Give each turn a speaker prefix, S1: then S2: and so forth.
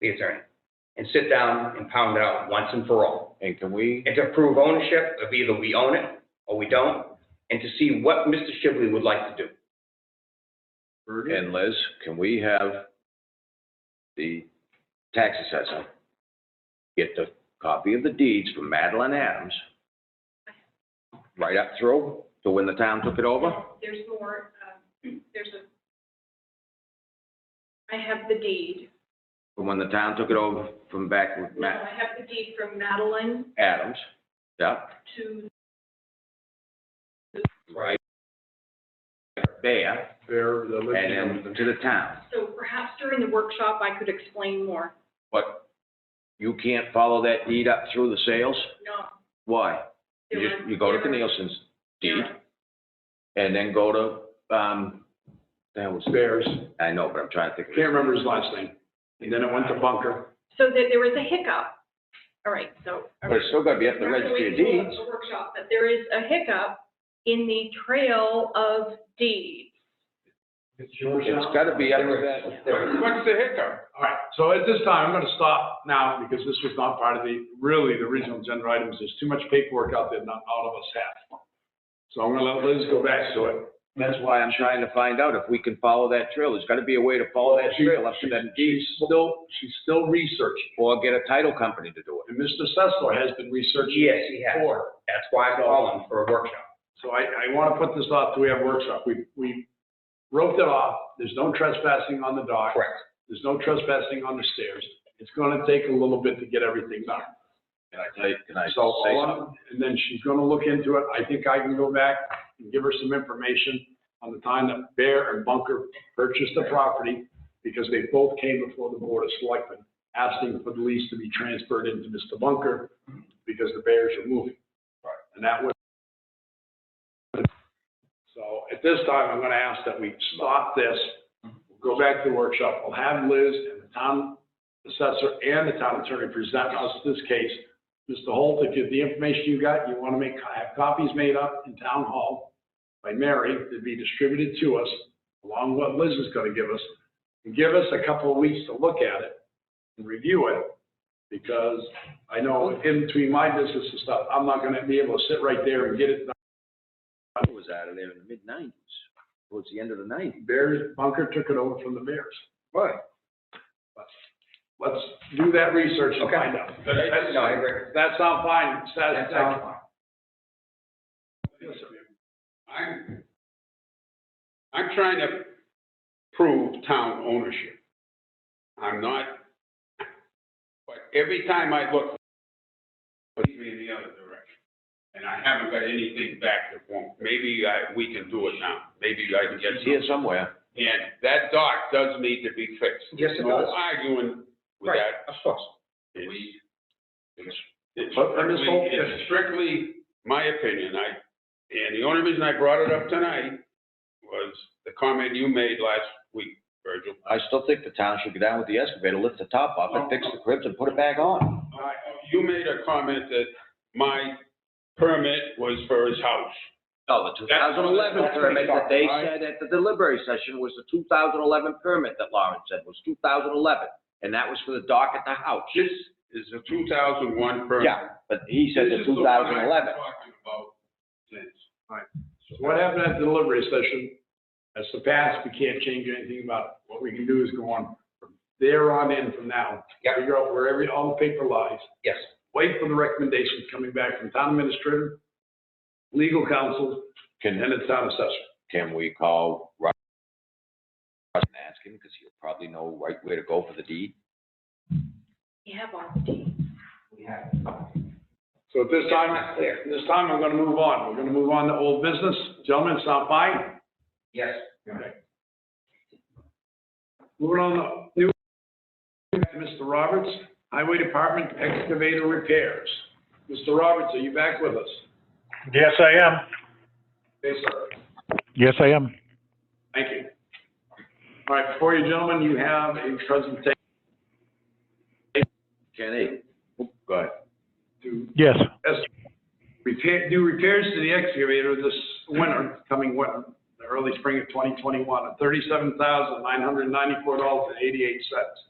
S1: the attorney, and sit down and pound it out once and for all.
S2: And can we,
S1: And to prove ownership of either we own it or we don't, and to see what Mr. Shibley would like to do.
S2: and Liz, can we have the tax assessor get the copy of the deeds from Madeline Adams right up through to when the town took it over?
S3: There's more, um, there's a, I have the deed.
S2: From when the town took it over from back with Ma-
S3: No, I have the deed from Madeline
S2: Adams? Yeah,
S3: to,
S2: right. There,
S4: They're the
S2: and then to the town.
S3: so perhaps during the workshop, I could explain more.
S2: But you can't follow that deed up through the sales?
S3: No.
S2: Why? You
S3: there
S2: just,
S3: are-
S2: you go to
S3: there are-
S2: Nielsen's deed
S3: there are-
S2: and then go to, um, that was,
S4: Bears.
S2: I know, but I'm trying to think. of
S4: Can't remember his last name. And then it went to Bunker.
S3: So there, there was a hiccup. All right, so.
S2: But it's still gotta be at the registry of deeds.
S3: A workshop, but there is a hiccup in the trail of deeds.
S4: It's yours
S2: It's gotta be up to
S4: What's the hiccup? All right, so at this time, I'm gonna stop now because this was not part of the, really, the original agenda items. There's too much paperwork out there not all of us have. So I'm gonna let Liz go back to it.
S2: that. That's why I'm trying to find out if we can follow that trail. There's gotta be a way to follow that
S4: She-
S2: trail up to that deed
S4: She's still, she's still researching.
S2: or get a title company to do it.
S4: And Mr. Sessler has been researching.
S1: Yes, he has.
S4: before.
S1: That's why I'm calling for a workshop.
S4: So I, I want to put this off till we have workshop. We, we roped it off. There's no trespassing on the dock.
S1: Correct.
S4: There's no trespassing on the stairs. It's going to take a little bit to get everything done.
S2: Can I tell you, can I say
S4: So, all I'm-
S2: something?
S4: and then she's going to look into it. I think I can go back and give her some information on the time that Bear and Bunker purchased the property because they both came before the Board of Selectmen asking for the lease to be transferred into Mr. Bunker because the Bears are moving. Right. And that was. So at this time, I'm going to ask that we stop this, go back to the workshop. We'll have Liz and the town assessor and the town attorney present us this case Mr. Holt, if you- the information you got, you want to make, have copies made up in town hall by Mary to be distributed to us, along with what Liz is going to give us. And give us a couple of weeks to look at it and review it, because I know in between my business and stuff, I'm not going to be able to sit right there and get it done.
S2: I was out of there in the mid nineties, towards the end of the nineties.
S4: Bears, Bunker took it over from the Bears.
S2: Right.
S4: Let's do that research and find out.
S1: No, I agree.
S4: That sound fine,
S1: That sounds
S4: satisfactory?
S1: fine.
S4: Yes, sir.
S5: I'm, I'm trying to prove town ownership. I'm not, but every time I look, it puts me in the other direction. And I haven't got anything back to form. Maybe I, we can do it now. Maybe I can get
S2: It's here
S5: some.
S2: somewhere.
S5: And that dock does need to be fixed.
S1: Yes, it
S5: No
S1: does.
S5: arguing with
S1: Right,
S5: that.
S1: of course.
S5: It's- It's it's
S4: But, but Ms.
S5: strictly,
S4: Holt, if-
S5: it's strictly my opinion, I, and the only reason I brought it up tonight was the comment you made last week, Virgil.
S2: I still think the town should go down with the excavator, lift the top off and fix the cribs and put it back on.
S5: I- You made a comment that my permit was for his house.
S2: No, the two thousand eleven
S5: That's-
S2: permit that they
S5: that's-
S2: said at the delivery session was the two thousand eleven permit that Lauren said was two thousand eleven. And that was for the dock at the house.
S5: This is a two thousand one permit.
S2: Yeah, but he said the
S5: This is
S2: two
S5: the one I've
S2: thousand
S5: been
S2: eleven.
S5: Talking about since.
S4: So What happened at the delivery session, that's the past, we can't change anything about it. What we can do is go on from there on in from now.
S1: Yep.
S4: Figure out where every, all the paper lies,
S1: Yes,
S4: wait for the recommendations coming back from town administrator, legal counsel, and
S2: Can,
S4: the town assessor.
S2: can we call Russ Russ and ask him, because he'll probably know right where to go for the deed?
S3: You have all the deeds.
S4: So at this time, at this time, I'm gonna move on. We're gonna move on to old business. Gentlemen, sound fine?
S1: yes.
S4: Moving on to new, Mr. Roberts, Highway Department excavator repairs. Mr. Roberts, are you back with us?
S6: Yes, I am.
S4: Yes, sir.
S6: Yes, I am.
S4: Thank you. All right, before you gentlemen, you have a presentation
S2: Kenny? Go ahead.
S4: to
S6: Yes.
S4: repair, do repairs to the excavator this winter, coming winter, the early spring of 2021, at $37,994.88.